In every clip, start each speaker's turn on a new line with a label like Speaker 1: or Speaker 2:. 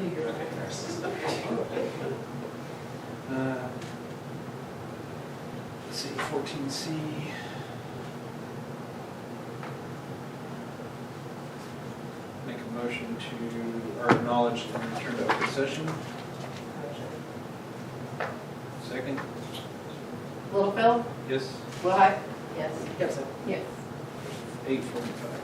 Speaker 1: You're a good nurse.
Speaker 2: Uh, Let's see, fourteen C. Make a motion to, or acknowledge and return to open session. Second,
Speaker 3: Little Phil?
Speaker 2: yes,
Speaker 3: Will I? Yes.
Speaker 1: Gibson.
Speaker 3: Yes.
Speaker 2: eight forty-five.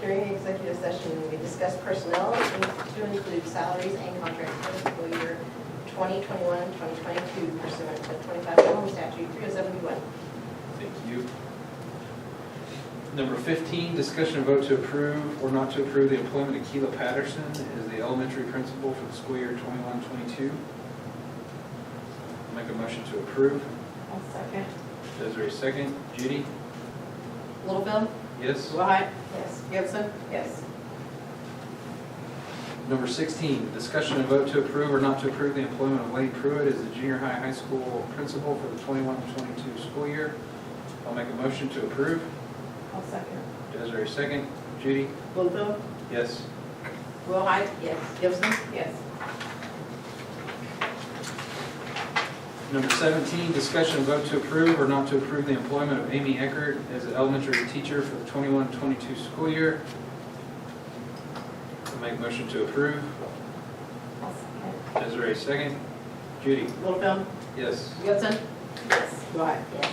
Speaker 4: During the executive session, we discussed personnel to include salaries and contracts for fiscal year 2021, 2022 pursuant to 25 Oklahoma statute 3071.
Speaker 2: Thank you. Number 15, discussion and vote to approve or not to approve the employment of Keela Patterson as the elementary principal for the school year 21-22. Make a motion to approve.
Speaker 3: I'll second.
Speaker 2: Desiree, second. Judy?
Speaker 3: Little Phil?
Speaker 2: Yes.
Speaker 3: Will I?
Speaker 4: Yes.
Speaker 3: Gibson? Yes.
Speaker 2: Number 16, discussion and vote to approve or not to approve the employment of Lane Pruitt as the junior high high school principal for the 21-22 school year. I'll make a motion to approve.
Speaker 3: I'll second.
Speaker 2: Desiree, second. Judy?
Speaker 3: Little Phil?
Speaker 2: Yes.
Speaker 3: Will I?
Speaker 4: Yes.
Speaker 3: Gibson? Yes.
Speaker 2: Number 17, discussion and vote to approve or not to approve the employment of Amy Eckert as an elementary teacher for the 21-22 school year. I Make motion to approve.
Speaker 3: I'll second.
Speaker 2: Desiree, second. Judy?
Speaker 3: Little Phil?
Speaker 2: Yes.
Speaker 3: Gibson?
Speaker 4: Yes.
Speaker 3: Will I?
Speaker 4: Yes.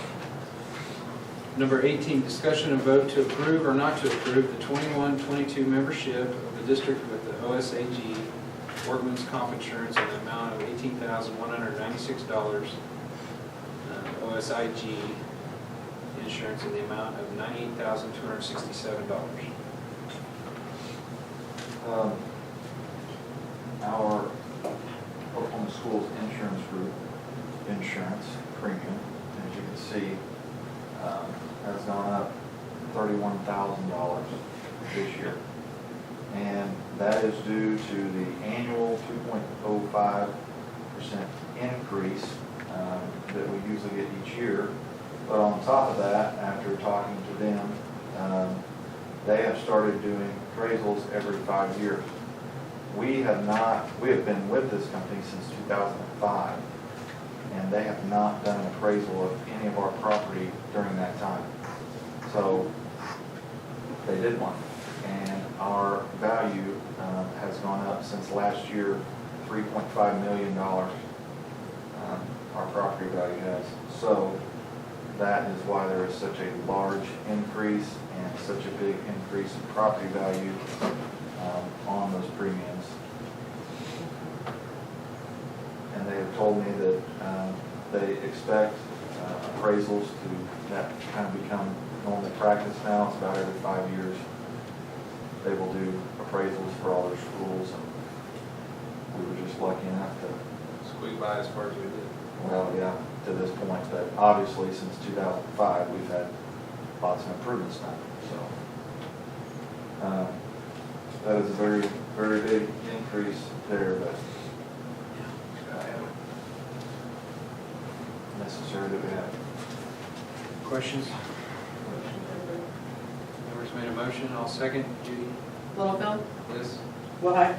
Speaker 2: Number 18, discussion and vote to approve or not to approve the 21-22 membership of the district with the OSAG workman's comp insurance in the amount of $18,196. uh, OSIG insurance in the amount of $98,267.
Speaker 5: Um, Our Oklahoma Schools Insurance Group insurance premium, as you can see, um, has gone up thirty-one thousand dollars this year. And that is due to the annual two point oh five percent increase um, that we usually get each year. But on top of that, after talking to them, um, they have started doing appraisals every five years. We have not, we have been with this company since 2005, and they have not done an appraisal of any of our property during that time. So they did one, and our value um, has gone up since last year, $3.5 million. um, Our property value has. So that is why there is such a large increase and such a big increase in property value um, on those premiums. And they have told me that um, they expect uh, appraisals to, that kind of become normal practice now, it's about every five years. They will do appraisals for all their schools, and we were just lucky enough to
Speaker 2: Squeak by as far as we did.
Speaker 5: well, yeah, to this point, but obviously since 2005, we've had lots of improvements now, so. uh, That is a very, very big increase there, but uh, necessary that we have.
Speaker 2: Questions?
Speaker 4: Motion to approve.
Speaker 2: Members made a motion, I'll second. Judy?
Speaker 3: Little Phil?
Speaker 2: Yes.
Speaker 3: Will I?
Speaker 4: Yes.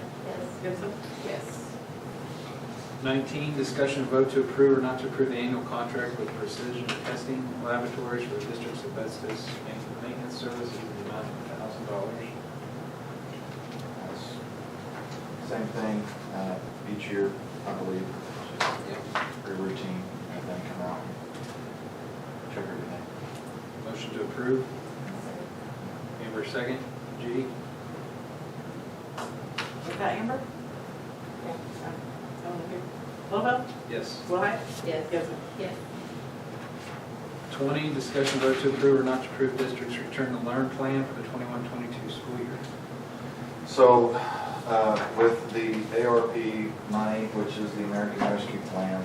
Speaker 3: Gibson? Yes.
Speaker 2: 19, discussion and vote to approve or not to approve the annual contract with Precision Testing Laboratories for the District's asbestos maintenance services in the amount of $1,000.
Speaker 5: That's Same thing uh, each year, I believe, very routine, and then come out and check everything.
Speaker 2: Motion to approve. Amber, second. Judy?
Speaker 3: Was that Amber?
Speaker 4: Yeah.
Speaker 3: Someone here? Little Phil?
Speaker 2: Yes.
Speaker 3: Will I?
Speaker 4: Yes.
Speaker 3: Gibson?
Speaker 4: Yes.
Speaker 2: 20, discussion and vote to approve or not to approve District's return to learn plan for the 21-22 school year.
Speaker 5: So, uh, with the ARP money, which is the American Rescue Plan,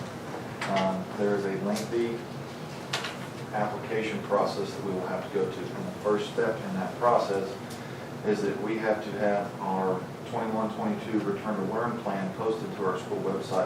Speaker 5: um, there is a lengthy application process that we will have to go to. And the first step in that process is that we have to have our 21-22 return to learn plan posted to our school website